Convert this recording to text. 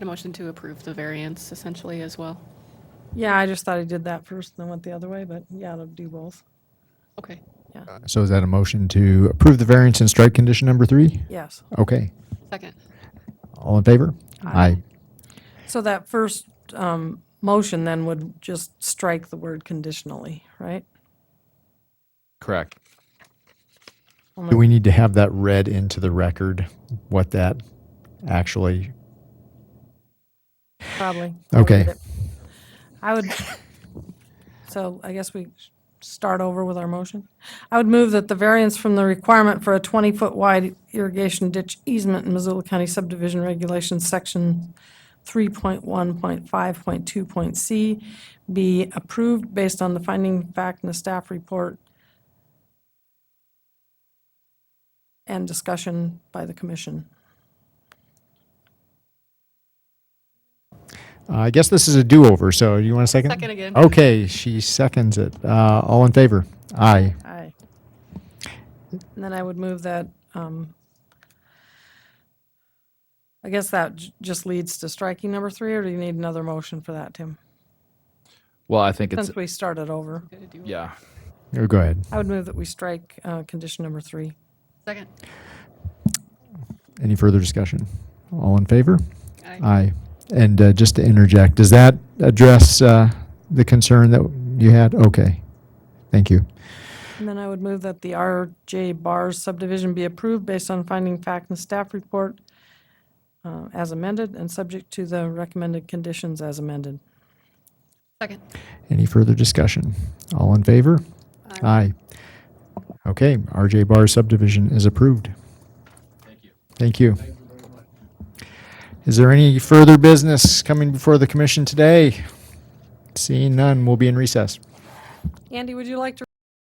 A motion to approve the variance essentially as well. Yeah, I just thought I did that first and then went the other way, but yeah, it'll do both. Okay. So is that a motion to approve the variance in strike condition number three? Yes. Okay. Second. All in favor? Aye. Um, So that first um, motion then would just strike the word conditionally, right? Correct. Do we need to have that read into the record, what that actually, Probably. Okay. I would, so I guess we start over with our motion. I would move that the variance from the requirement for a 20-foot wide irrigation ditch easement in Missoula County subdivision regulations, section 3.1.5.2. C, be approved based on the finding fact in the staff report and discussion by the commission. I guess this is a do-over, so you want a second? Second again. Okay, she seconds it. Uh, All in favor? Aye. Aye. And then I would move that, um, I guess that j- just leads to striking number three, or do you need another motion for that, Tim? Well, I think it's, Since we started over, yeah. Oh, Go ahead. I would move that we strike uh, condition number three. Second. Any further discussion? All in favor? Aye. Aye. And uh, just to interject, does that address uh, the concern that you had? Okay. Thank you. And then I would move that the RJ Bars subdivision be approved based on finding fact and staff report uh, as amended and subject to the recommended conditions as amended. Second. Any further discussion? All in favor? Aye. Okay, RJ Bar subdivision is approved. Thank you. Thank you. Is there any further business coming before the commission today? Seeing none, we'll be in recess. Andy, would you like to